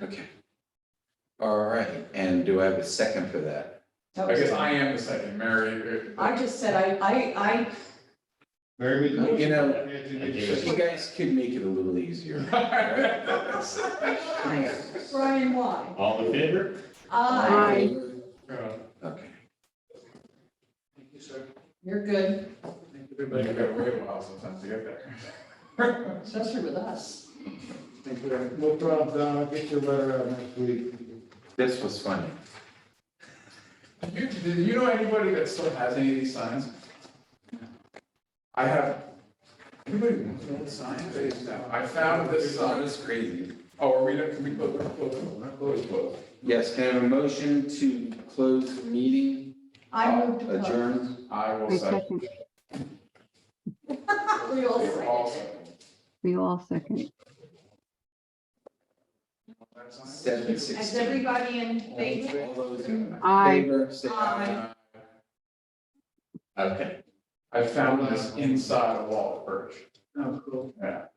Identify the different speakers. Speaker 1: Okay. All right, and do I have a second for that?
Speaker 2: That
Speaker 3: I
Speaker 2: was-
Speaker 3: guess I am the second, Mary. uh,
Speaker 2: I just said, I, I, I,
Speaker 4: Mary, we.
Speaker 1: You know,
Speaker 4: Anthony,
Speaker 1: You
Speaker 4: you said-
Speaker 1: guys could make it a little easier.
Speaker 2: Brian, why?
Speaker 5: All in favor?
Speaker 2: I,
Speaker 3: Uh,
Speaker 1: Okay,
Speaker 2: you're good,
Speaker 3: We've been to wait a while sometimes to get there.
Speaker 2: especially with us.
Speaker 4: Thank you. No problem, Don, I'll get your letter out next week.
Speaker 1: this was funny.
Speaker 3: You, do you know anybody that still has any of these signs? I have, anybody wants an old sign base now? I found this sign,
Speaker 1: was crazy.
Speaker 3: oh, are we, not- can we close, close, close, close?
Speaker 1: Yes, can I have a motion to close the meeting?
Speaker 2: I
Speaker 3: Uh,
Speaker 2: moved to close.
Speaker 1: Adjourn.
Speaker 3: I will
Speaker 6: I
Speaker 3: say,
Speaker 6: second,
Speaker 2: We all
Speaker 3: they were
Speaker 2: second.
Speaker 3: all second.
Speaker 6: we all second.
Speaker 3: That sign?
Speaker 1: Seven
Speaker 2: Is
Speaker 1: sixteen.
Speaker 2: everybody in favor?
Speaker 1: All those in
Speaker 6: Aye.
Speaker 1: favor, say aye.
Speaker 2: Aye.
Speaker 1: Okay.
Speaker 3: I found this inside a wall of birch.
Speaker 1: Oh, cool.
Speaker 3: Yeah.